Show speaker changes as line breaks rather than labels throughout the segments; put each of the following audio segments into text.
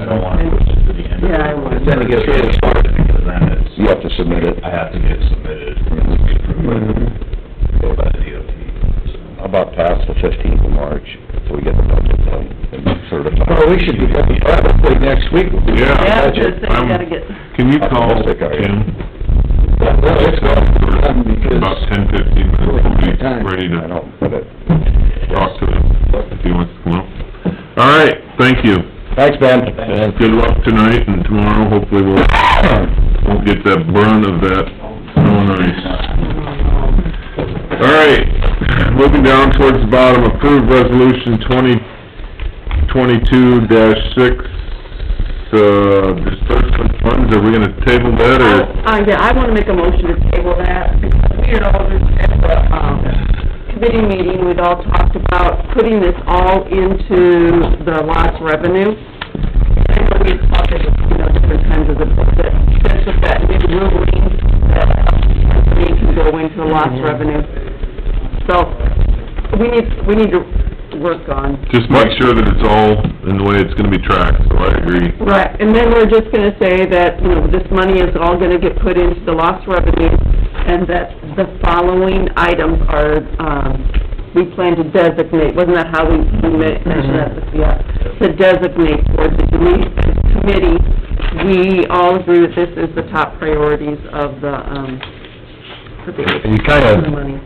I don't wanna push it to the end.
Yeah, I would.
Then it gets-
Because then it's.
You have to submit it.
I have to get it submitted, and be approved by, by the DOT.
How Mm-hmm. about past the fifteenth of March, so we get the budget done and certified?
Well, we should be done probably next week.
Yeah,
Yeah.
it's just, they gotta get,
Um, Can you call
Optimistic, are you?
Tim
Well, it's done
about
because
ten fifteen minutes, we'll be
Time.
ready
I
to
don't, but it,
talk to him if he wants to come up. All right, thank you.
thanks, Ben.
Good luck tonight and tomorrow, hopefully we'll, won't get the burn of that snow and ice. All right, moving down towards the bottom, approved resolution twenty twenty-two dash six, uh, disbursement funds, are we gonna table that or?
uh, yeah, I wanna make a motion to table that, because, you know, this, at the, um, committee meeting, we'd all talked about putting this all into the lost revenue. I know we talked at, you know, different times of the, that, that's what that new ruling, that we can go into the lost revenue. So, we need, we need to work on
Just make sure that it's all in the way it's gonna be tracked, so I agree.
Right, and then we're just gonna say that, you know, this money is all gonna get put into the lost revenue, and that the following items are, um, we plan to designate, wasn't that how we we ma- mentioned that, yeah? To designate for the commi- committee, we all agree that this is the top priorities of the, um, for the,
you kind
for the
of,
money.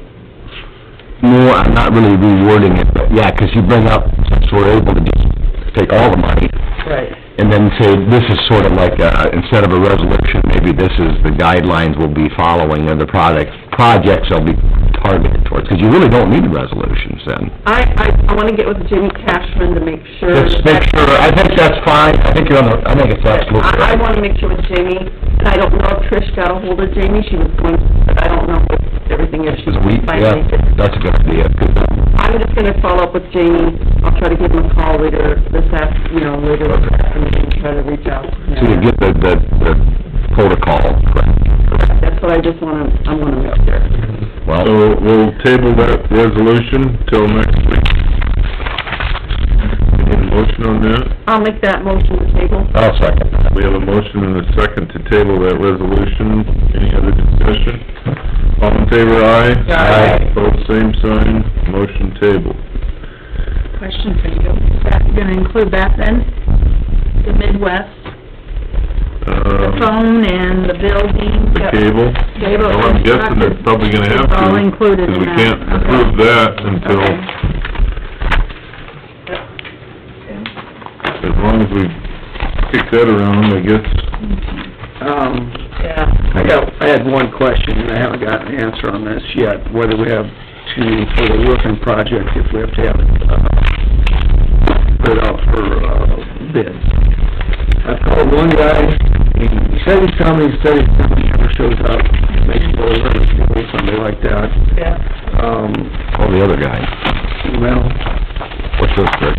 no, I'm not really rewording it, but yeah, 'cause you bring up, since we're able to just take all the money
Right.
and then say, this is sort of like, uh, instead of a resolution, maybe this is the guidelines we'll be following or the products, projects they'll be targeted towards, 'cause you really don't need resolutions then.
I, I, I wanna get with Jimmy Cashman to make sure.
Just make sure, I think that's fine, I think you're on the, I think it's absolutely
I, I
right.
wanna make sure with Jamie, and I don't know if Trish got a hold of Jamie, she was going, but I don't know if everything is, she
Is we,
finally
yeah,
did.
that's a good idea,
I'm just gonna follow up with Jamie, I'll try to give him a call later this af, you know, later this afternoon, try to reach out.
so you get the, the, the protocol correct.
That's what I just wanna, I wanna make sure.
Well,
So we'll table that resolution till next week. We need a motion on that.
I'll make that motion to table.
I'll second that.
We have a motion and a second to table that resolution. Any other discussion? All in favor, aye?
Aye.
Both same sign, motion tabled.
Question for you, is that gonna include that then? The Midwest, the
Um,
phone and the building?
the cable?
Cable
Well, I'm guessing they're probably gonna have to.
It's all included in
Because
that,
we can't
okay.
approve that until,
Okay.
as long as we kick that around, I guess.
Um,
Yeah.
I got, I had one question, and I haven't got an answer on this yet, whether we have to, for the roofing project, if we have to have, it, uh, put out for, uh, bid. I called one guy, he said he's coming, he said he's coming, he never shows up, makes no sense, or something like that.
Yeah.
Um,
Oh, the other guy,
well,
what's this for?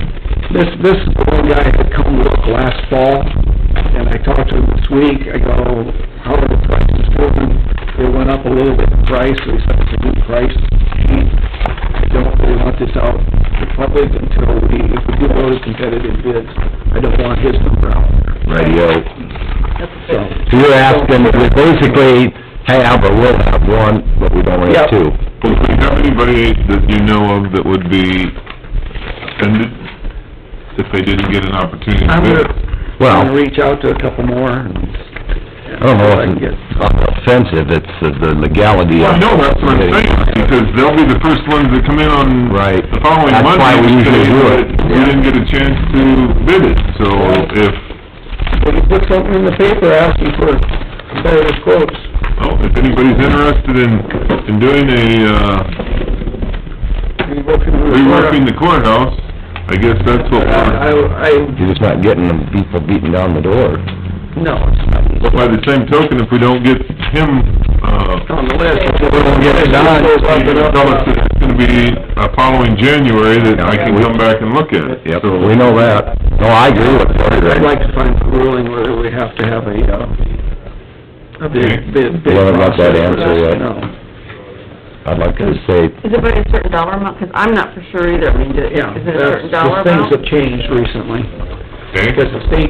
this, this is the one guy that come look last fall, and I talked to him this week, I go, how are the prices going? They went up a little bit in price, they said it's a good price, cheap. I don't really want this out to the public until we, if we do those competitive bids, I don't want his number out there,
Radio.
so.
So you're asking, we basically have, but we'll have one, but we don't have
Yep.
two.
Well, do you have anybody that you know of that would be offended if they didn't get an opportunity to
I'm
bid?
gonna, I'm gonna
Well,
reach out to a couple more and.
I don't know
I can
if
get-
it's offensive, it's the the legality
Well,
of...
no, that's what I'm saying, because they'll be the first ones that come in on
Right.
the following
That's
Monday.
why we
and say
usually do
that
it,
We
yeah.
didn't get a chance to bid it, so if,
But you put something in the paper asking for competitive quotes.
oh, if anybody's interested in, in doing a, uh, reworking the courthouse, I guess that's what
I,
we're,
I,
You're just not getting them people beating down the door.
no, it's not
but by the same token, if we don't get him, uh,
on the list.
Tell us that it's gonna be, uh, following January that I can come back and look at it.
Yep, we know that. No, I agree with Cory.
I'd like to find a ruling whether we have to have a, uh, a big, big, big
We haven't got that
process for
answer
this,
yet.
no.
I'd like to say,
Is it by a certain dollar amount? Cause I'm not for sure either, I mean, do- is
Yeah,
it a certain
that's,
dollar
the
amount?
things have changed recently,
Okay?
because the state